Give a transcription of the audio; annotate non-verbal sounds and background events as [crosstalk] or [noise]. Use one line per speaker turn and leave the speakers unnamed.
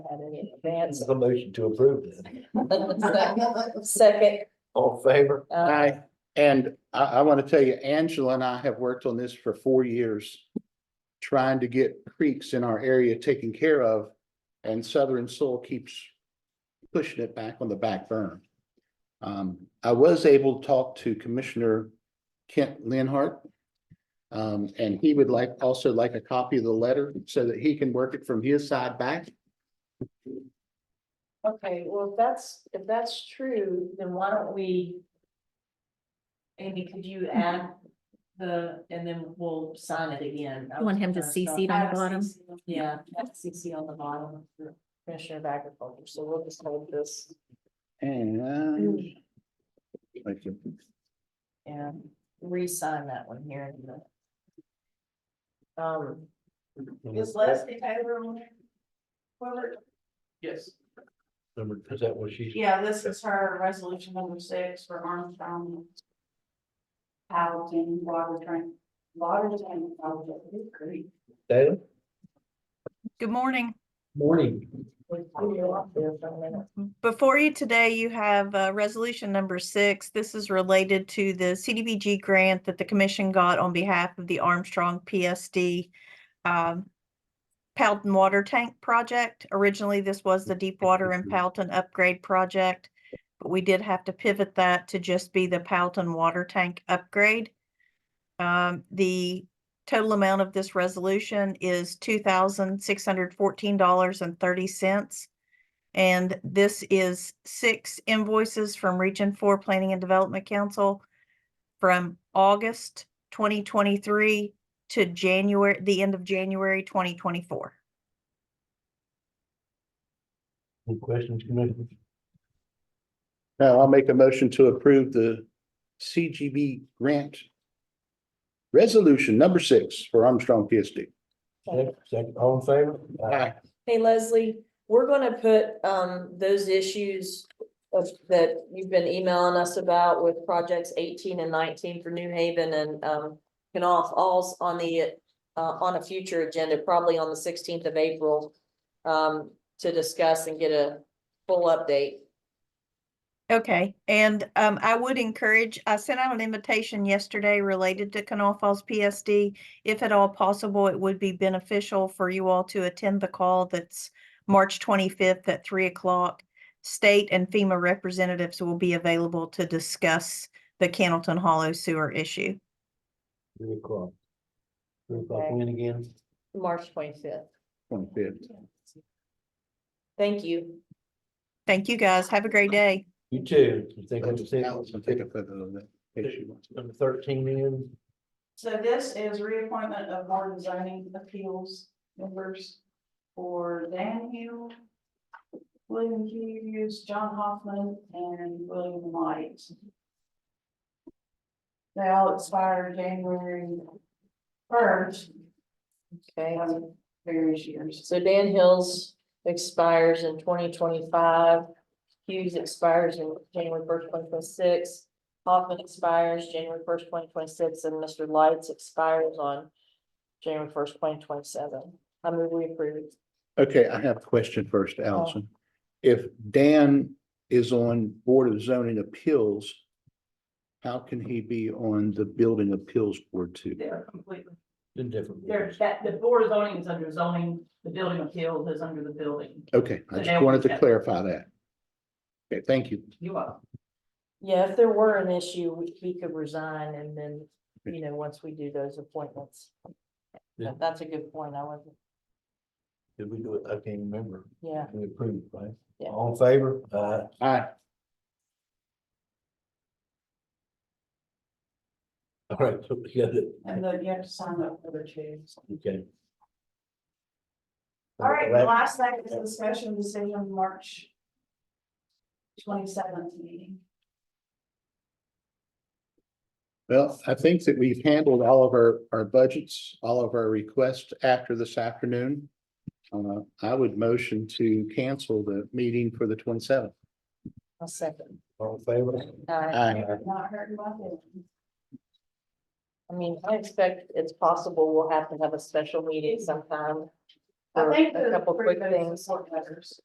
that in advance.
A motion to approve then.
[laughs] Second,
All in favor?
uh,
Hi, and I, I want to tell you, Angela and I have worked on this for four years. Trying to get creeks in our area taken care of and Southern Soil keeps pushing it back on the back burn. Um, I was able to talk to Commissioner Kent Lenhart. Um, and he would like, also like a copy of the letter so that he can work it from his side back.
okay, well, if that's, if that's true, then why don't we? Amy, could you add the, and then we'll sign it again. Uh,
You want him to CC on the bottom?
Yeah, that's CC on the bottom, for Commissioner of Agriculture, so we'll just hold this
And. Thank you.
and re-sign that one here in a minute. Um, is Leslie Taylor on there? Whoever,
Yes. Number, is that what she's?
Yeah, this is her resolution number six for Armstrong. Housing, water train, water tank, great.
Dana?
Good morning.
Morning.
we threw you off there for a minute.
Before you today, you have uh, resolution number six. This is related to the CDBG grant that the commission got on behalf of the Armstrong PSD um, Powelton Water Tank Project. Originally, this was the Deep Water and Powelton Upgrade Project, but we did have to pivot that to just be the Powelton Water Tank Upgrade. Um, The total amount of this resolution is two thousand six hundred fourteen dollars and thirty cents. And this is six invoices from Region Four Planning and Development Council from August twenty twenty-three to January, the end of January twenty twenty-four.
Any questions, Commissioner?
Now I'll make a motion to approve the CGB grant. Resolution number six for Armstrong PSD.
Second- Second, all in favor?
Hey Leslie, we're gonna put um those issues of that you've been emailing us about with projects eighteen and nineteen for New Haven and um. Can all, all's on the uh on a future agenda, probably on the sixteenth of April. Um, to discuss and get a full update.
Okay, and um, I would encourage, I sent out an invitation yesterday related to Canal Falls PSD. If at all possible, it would be beneficial for you all to attend the call that's March twenty-fifth at three o'clock. State and FEMA representatives will be available to discuss the Cannleton Hollow sewer issue.
Three o'clock. Three o'clock,
Okay.
when again?
March twenty-fifth.
Twenty-fifth.
Thank you.
Thank you, guys. Have a great day.
You too. You think I'm
Allison,
sick?
Take a uh, photo of that. if she wants.
Number thirteen in,
So this is reappointment of board of zoning appeals members for Dan Hill, William Hughes, John Hoffman, and William Light. They all expire January first,
Okay,
um, various years.
so Dan Hills expires in twenty twenty-five. Hughes expires in January first, twenty twenty-six. Hoffman expires January first, twenty twenty-six, and Mr. Lights expires on January first, twenty twenty-seven. I move we approve.
Okay, I have a question first, Allison. If Dan is on Board of Zoning Appeals, how can he be on the Building Appeals Board too?
They're completely
in different.
There's that, the board of zoning is under zoning, the building appeals is under the building.
Okay, I
So
just
now we
wanted to
have-
clarify that. Okay, thank you.
You are.
Yeah, if there were an issue, we- he could resign and then, you know, once we do those appointments.
Yeah.
That's a good point. I wasn't,
Did we do it? I can't remember.
yeah.
We approved, right?
Yeah.
All in favor? Aye.
Aye.
All right, so we got it.
And then you have to sign up for the two.
Okay.
All right, the last thing is discussion decision March twenty seventh meeting.
Well, I think that we've handled all of our, our budgets, all of our requests after this afternoon. Uh, I would motion to cancel the meeting for the twenty-seventh.
I'll second.
All in favor?
Aye.
Aye.
Not hurting my feelings.
I mean, I expect it's possible we'll have to have a special meeting sometime.
I
for
think
A
the
couple quick
three votes
things.
support letters.